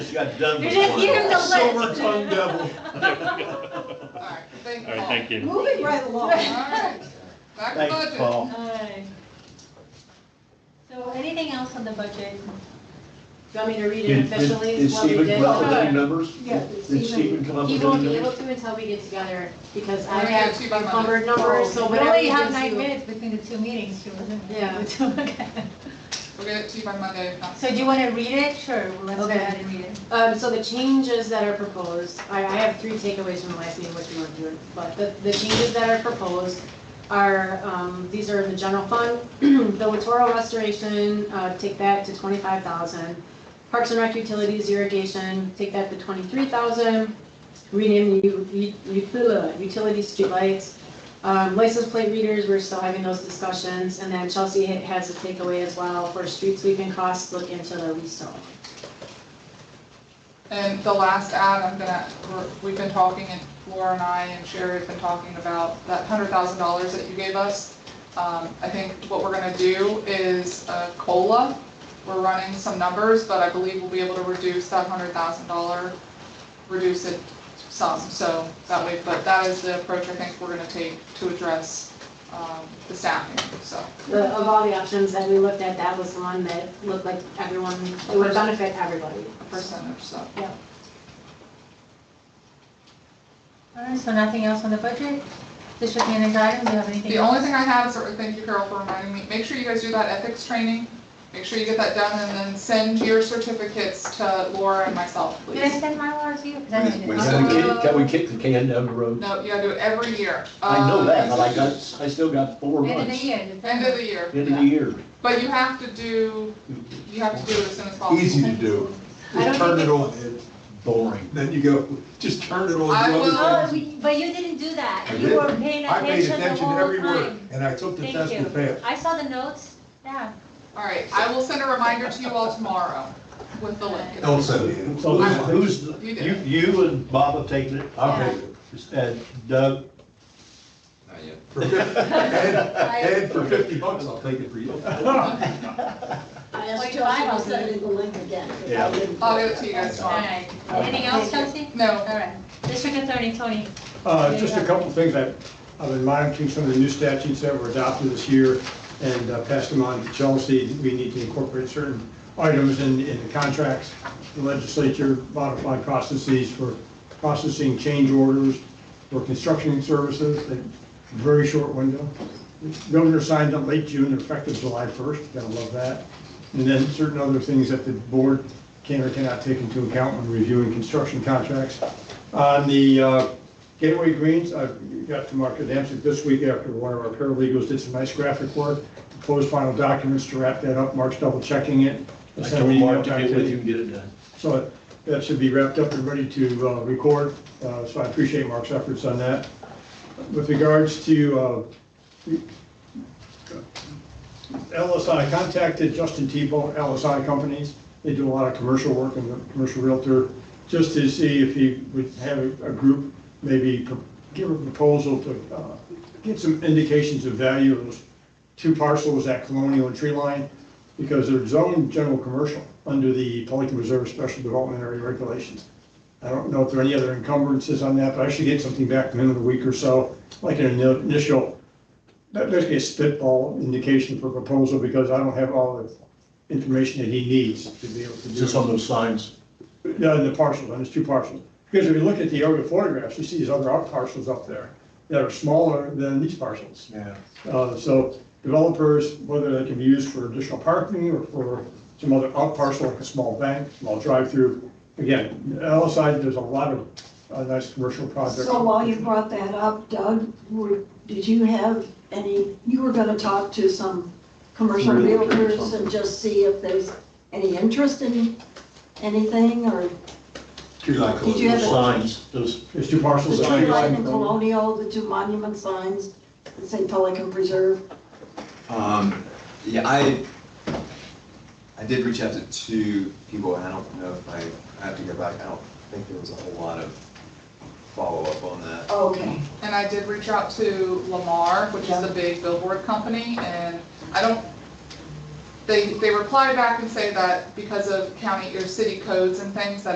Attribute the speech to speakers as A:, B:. A: just got done
B: You
A: with
B: didn't
A: one.
B: give him the list.
C: Silver tongue devil.
D: All right, thank you,
E: All right,
D: Paul.
E: thank you.
F: Moving right along.
D: All right, back to
A: Thanks,
D: budget.
A: Paul.
B: Aye. So anything else on the budget?
F: Do you want me to read it
C: Did- Did
F: officially,
C: did
F: what we
C: Stephen
F: did?
C: come up with any numbers?
F: Yeah,
C: Did Stephen come up
F: He
C: with
F: won't
C: any
F: be able
C: numbers?
F: to until we get together, because I
D: We're gonna
F: have
D: get you by Monday.
F: encumbered numbers, so
B: We
F: whatever
B: only
F: he
B: have
F: gives
B: nine
F: you.
B: minutes between the two meetings, too, isn't it?
F: Yeah.
B: The two- okay.
D: We'll get it to you by Monday, if not.
B: So do you want to read it? Sure, well, let's go
F: Okay.
B: ahead and read it.
F: Um, so the changes that are proposed, I, I have three takeaways from last meeting, which we weren't doing, but the, the changes that are proposed are, um, these are in the general fund, the Littoral restoration, uh, take that to twenty-five thousand. Parks and Rec utilities irrigation, take that to twenty-three thousand. Rename the u- u- u- utility streetlights. Um, license plate readers, we're still having those discussions, and then Chelsea ha- has a takeaway as well for street sweeping costs, look into the lease.
D: And the last ad, I'm gonna, we're- we've been talking, and Laura and I and Sherry have been talking about that hundred thousand dollars that you gave us. Um, I think what we're gonna do is a COLA. We're running some numbers, but I believe we'll be able to reduce that hundred thousand dollar, reduce it some, so that way, but that is the approach I think we're gonna take to address, um, the staffing, so.
F: The, of all the options that we looked at, that was the one that looked like everyone, it would benefit everybody.
D: a percentage, so.
B: All right, so nothing else on the budget? District manager items, do you have anything?
D: The
B: else?
D: only thing I have is, thank you Carol for reminding me, make sure you guys do that ethics training. Make sure you get that done and then send your certificates to Laura and myself,
B: Did I
D: please.
B: send my laws to you? 'Cause I didn't.
C: We- we- Can we kick- can we kick the can down the road?
D: No, you gotta do it every year.
C: I know that,
D: Um,
C: but I got, I still got four
B: End of the
C: months,
B: year.
D: Uh, End of the year.
C: end of the year.
D: But you have to do, you have to do it as soon as possible.
C: Easy.
F: to do. I don't
C: Just turn
F: think
C: it on, it's boring. Then you go, just turn it on.
D: I
C: do other
D: will-
C: things.
B: Oh, we- but you didn't do that.
C: I
B: You
C: did.
B: were paying
C: I paid
B: attention the
C: attention to
B: whole
C: every word,
B: time.
C: and I took the
B: Thank
C: test
B: you.
C: and failed.
B: I saw the notes, yeah.
D: All right, I will send a reminder to you all tomorrow with the link.
C: Don't say
A: So who's, who's- you,
D: You did.
A: you and Bob have taken it,
C: I'll take it. uh,
A: and Doug,
G: Not yet.
C: For fif- Ed, Ed, for fifty bucks, I'll take it for you.
H: I asked
B: Like
H: Josh, I'll
B: Bible.
H: send it oh the link again. oh 'cause I
A: Yeah.
H: didn't-
D: I'll get it to you guys
B: All
D: tomorrow.
B: right. Anything else, Chelsea?
D: No,
B: All right. District Attorney Tony.
I: Uh, Just a couple of things, I've I've been monitoring some of the new statutes that were adopted this year and uh, passed them on to Chelsea. We need to incorporate certain items in, in the contracts. The legislature modified processes for processing change orders for construction services, a very short window. The Governor signed up late June, effective July 1st, gotta love that. And then certain other things that the board can or cannot take into account when reviewing construction contracts. On the uh, Gateway Greens, I got to Mark Adamczyk this week after one of our paralegals did some nice graphic work, proposed final documents to wrap that up, Mark's double checking it.
C: I
I: Sent an
C: told
I: email
C: Mark to
I: back
C: get with
I: the-
C: you and get it done.
I: so that should be wrapped up and ready to uh, record, Uh, so I appreciate Mark's efforts on that. With regards to uh, LSI, contacted Justin Tebow, LSI Companies. They do a lot of commercial work and the commercial realtor, just to see if he would have a a group, maybe pro- give a proposal to uh, get some indications of value of those two parcels at Colonial and Tree Line, because they're zoned general commercial under the Pelican Reserve Special Development Area Regulations. I don't know if there are any other encumbrances on that, but I should get something back within a week or so, like an initial that basically a spitball indication for proposal because I don't have all the information that he needs to be able to do.
C: Is this on those signs?
I: Yeah, the parcels, on there's two parcels. Because if you look at the aerial photographs, you see these other out parcels up there that are smaller than these parcels.
C: Yeah.
I: Uh, so developers, whether they can be used for additional parking or for some other out parcel, like a small bank, small drive-through. Again, LSI, there's a lot of, uh, nice commercial projects.
H: So while you brought that up, Doug, were, did you have any, you were gonna talk to some commercial
C: Realtor or
H: realtors
C: something.
H: and just see if there's any interest in anything, or
C: Tree line.
H: Did you have a-
C: Signs, those,
I: There's two parcels.
H: the
I: that are-
H: tree line and Colonial, the two monument signs, that say Pelican Preserve?
G: Um, yeah, I, I did reach out to two people, and I don't know if I, I have to go back, I don't think there was a whole lot of follow-up on that.
H: Oh, Okay.
D: And I did reach out to Lamar, which is the big billboard company, and I don't, they, they reply back and say that because of county or city codes and things, that